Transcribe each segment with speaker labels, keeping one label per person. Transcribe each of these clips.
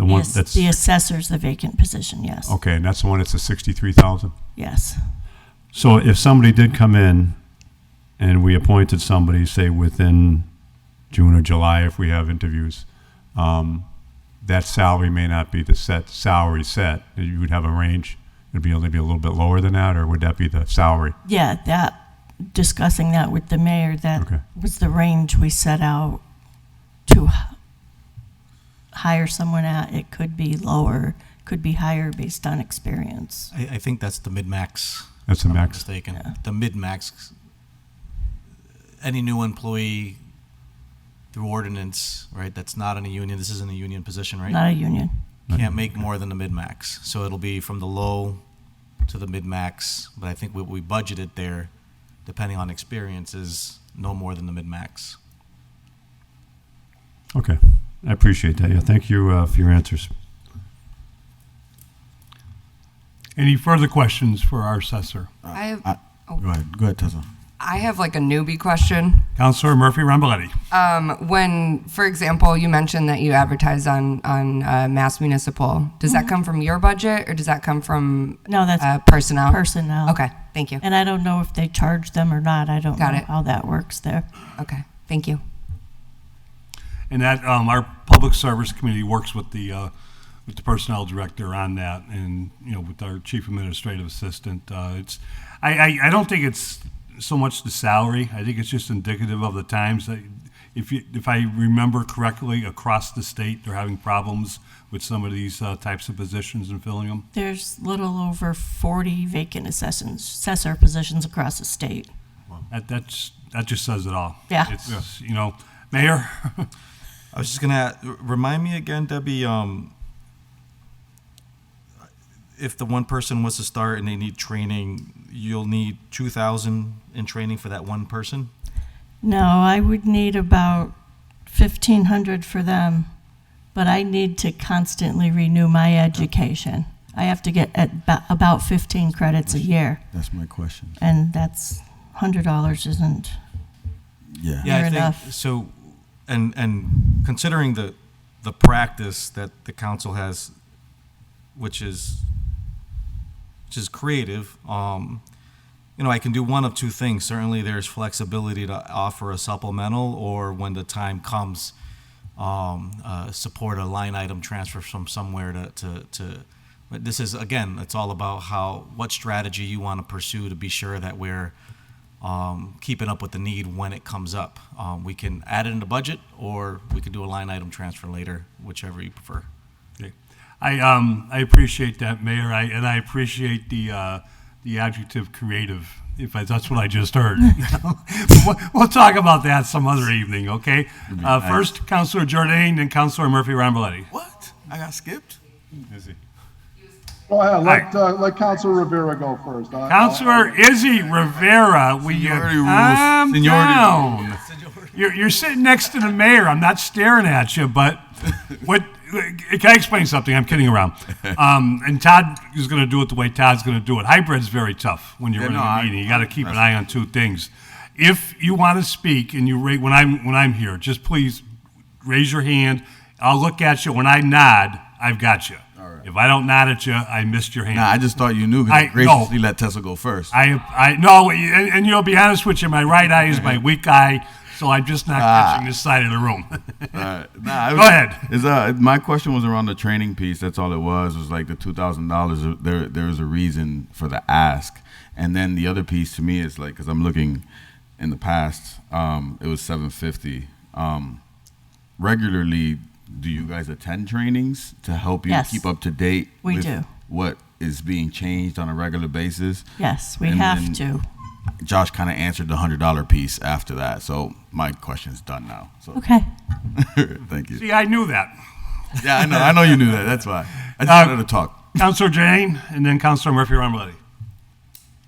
Speaker 1: ass-
Speaker 2: that's-
Speaker 1: The assessor's the vacant position, yes,
Speaker 2: Okay, and that's the one that's a sixty-three thousand?
Speaker 1: yes.
Speaker 2: So if somebody did come in and we appointed somebody, say within June or July, if we have interviews, um, that salary may not be the set salary set. You would have a range. It'd be only be a little bit lower than that, or would that be the salary?
Speaker 1: Yeah, that, discussing that with the mayor,
Speaker 2: Okay.
Speaker 1: that was the range we set out to h- hire someone at. It could be lower, could be higher based on experience.
Speaker 3: I, I think that's the mid-max.
Speaker 2: That's the
Speaker 3: if I'm not
Speaker 2: max.
Speaker 3: Mistaken.
Speaker 1: Yeah.
Speaker 3: The mid-max. Any new employee through ordinance, right? That's not in a union. This isn't a union position, right?
Speaker 1: Not a union,
Speaker 3: Can't make more than the mid-max. So it'll be from the low to the mid-max. But I think what we budgeted there, depending on experience, is no more than the mid-max.
Speaker 2: Okay, I appreciate that. Yeah, thank you uh, for your answers.
Speaker 4: Any further questions for our assessor?
Speaker 5: I have,
Speaker 6: Uh, I-
Speaker 1: Oh.
Speaker 6: Go ahead, go ahead, Tessa.
Speaker 5: I have like a newbie question.
Speaker 4: Counselor Murphy Ramboletti.
Speaker 5: Um, when, for example, you mentioned that you advertise on on uh, Mass Municipal, does that come from your budget or does that come from
Speaker 1: No, Mm-hmm. that's
Speaker 5: uh, personnel?
Speaker 1: personnel.
Speaker 5: Okay, thank you.
Speaker 1: And I don't know if they charge them or not. I don't know
Speaker 5: Got it.
Speaker 1: how that works there.
Speaker 5: Okay, thank you.
Speaker 4: And that, um, our public service committee works with the, uh, with the personnel director on that and, you know, with our chief administrative assistant. Uh, it's, I, I, I don't think it's so much the salary. I think it's just indicative of the times that, if you, if I remember correctly, across the state, they're having problems with some of these, uh, types of positions and filling them.
Speaker 1: There's little over 40 vacant assessors, assessor positions across the state.
Speaker 4: That, that's, that just says it all.
Speaker 1: Yeah.
Speaker 4: It's, you know, mayor,
Speaker 3: I was just gonna a- r- remind me again, Debbie. Um, if the one person was to start and they need training, you'll need two thousand in training for that one person.
Speaker 1: No, I would need about 1,500 for them, but I need to constantly renew my education. I have to get at ba- about 15 credits a year,
Speaker 6: That's my question.
Speaker 1: and that's $100 isn't.
Speaker 6: Yeah.
Speaker 3: Yeah,
Speaker 1: Fair
Speaker 3: I
Speaker 1: enough.
Speaker 3: think so. And and considering the the practice that the council has, which is which is creative, um, you know, I can do one of two things. Certainly, there's flexibility to offer a supplemental, or when the time comes, um, uh, support a line item transfer from somewhere to to. to but this is again, it's all about how what strategy you want to pursue to be sure that we're um, keeping up with the need when it comes up. Um, we can add it in the budget, or we can do a line item transfer later, whichever you prefer.
Speaker 4: Okay. I, um, I appreciate that, Mayor, I, and I appreciate the, uh, the adjective creative, if I, that's what I just heard. We'll- We'll talk about that some other evening, okay? Uh, first, Counselor Jordan, then Counselor Murphy Ramboletti.
Speaker 6: What? I got skipped?
Speaker 7: Go ahead, let, uh, let Counselor Rivera go first. I-
Speaker 4: Counselor Izzy Rivera, will you
Speaker 6: Seniority rules.
Speaker 4: calm
Speaker 6: Seniority
Speaker 4: down? You're, you're sitting next to the mayor. I'm not staring at you, but what? Can I explain something? I'm kidding around. Um, and Todd is going to do it the way Todd's going to do it. Hybrid's very tough when you're
Speaker 6: Yeah,
Speaker 4: in
Speaker 6: no,
Speaker 4: a
Speaker 6: I-
Speaker 4: meeting. You got to keep an eye on two things. If you want to speak and you rate when I'm when I'm here, just please raise your hand. I'll look at you. When I nod, I've got you. If I don't nod at you, I missed your hand.
Speaker 6: Nah, I just thought you knew because
Speaker 4: I-
Speaker 6: you graciously
Speaker 4: no.
Speaker 6: let Tessa go first.
Speaker 4: I, I no, and, and you'll be honest with you. My right eye is my weak eye, so I'm just not catching this side of the room.
Speaker 6: Uh, nah, it
Speaker 4: Go
Speaker 6: was-
Speaker 4: ahead.
Speaker 6: It's, uh, my question was around the training piece. That's all it was. Was like the two thousand dollars. uh, There, there is a reason for the ask. And then the other piece to me is like, because I'm looking in the past, um, it was seven fifty. Um, regularly, do you guys attend trainings to help you
Speaker 1: Yes.
Speaker 6: keep up to date?
Speaker 1: We do.
Speaker 6: What is being changed on a regular basis?
Speaker 1: Yes, we
Speaker 6: And
Speaker 1: have
Speaker 6: then-
Speaker 1: to.
Speaker 6: Josh kind of answered the hundred dollar piece after that, so my question's done now. So
Speaker 1: Okay.
Speaker 6: thank you.
Speaker 4: See, I knew that.
Speaker 6: Yeah, I know. I know you knew that. That's why I just
Speaker 4: Uh,
Speaker 6: wanted to talk.
Speaker 4: Counselor Jane, and then Counselor Murphy Ramboletti.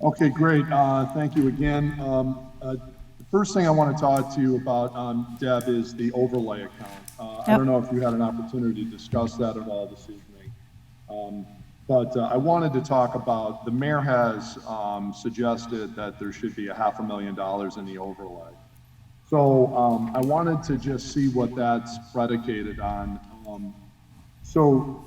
Speaker 7: Okay, great. Uh, Thank you again. Um, uh, The first thing I want to talk to you about, um, Deb, is the overlay account. Uh, I
Speaker 1: Yep.
Speaker 7: don't know if you had an opportunity to discuss that at all this evening. Um, But uh, I wanted to talk about, the mayor has um, suggested that there should be a half a million dollars in the overlay. So um, I wanted to just see what that's predicated on. Um, So